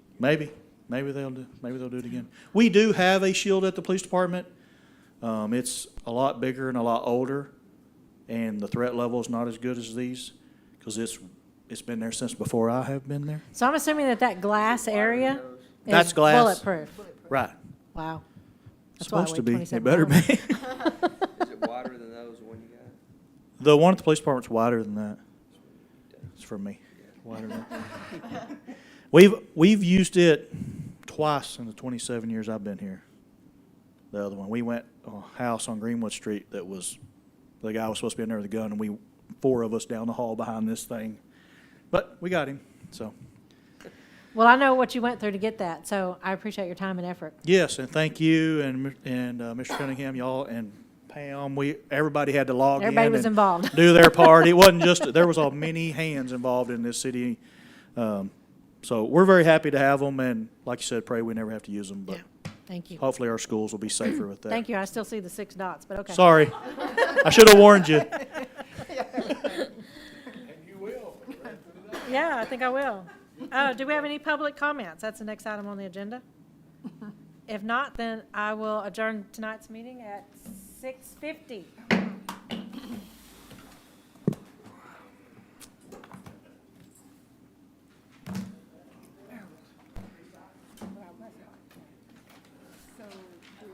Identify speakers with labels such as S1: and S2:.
S1: Maybe, maybe they'll do, maybe they'll do it again. We do have a shield at the police department. Um, it's a lot bigger and a lot older, and the threat level is not as good as these, because it's, it's been there since before I have been there.
S2: So I'm assuming that that glass area
S1: That's
S2: is
S1: glass.
S2: bulletproof.
S1: Right.
S2: Wow. That's why I
S1: Supposed to
S2: weighed
S1: be. It
S2: 27
S1: better
S2: pounds.
S1: be.
S3: Is it wider than those one you got?
S1: The one at the police department's wider than that. It's for me. Wider than that. We've, we've used it twice in the twenty-seven years I've been here. The other one, we went on a house on Greenwood Street that was, the guy was supposed to be in there with a gun and we, four of us down the hall behind this thing. But we got him, so.
S2: Well, I know what you went through to get that, so I appreciate your time and effort.
S1: Yes, and thank you and, mi- and uh, Mr. Cunningham, y'all, and Pam, we, everybody had to log in.
S2: Everybody was
S1: and
S2: involved.
S1: Do their part. It wasn't just, there was a many hands involved in this city. Um, So we're very happy to have them, and like you said, pray we never have to use them, but
S2: Thank you.
S1: hopefully our schools will be safer with that.
S2: Thank you. I still see the six dots, but okay.
S1: Sorry. I should have warned you.
S2: Yeah, I think I will. Oh, do we have any public comments? That's the next item on the agenda. If not, then I will adjourn tonight's meeting at 6:50.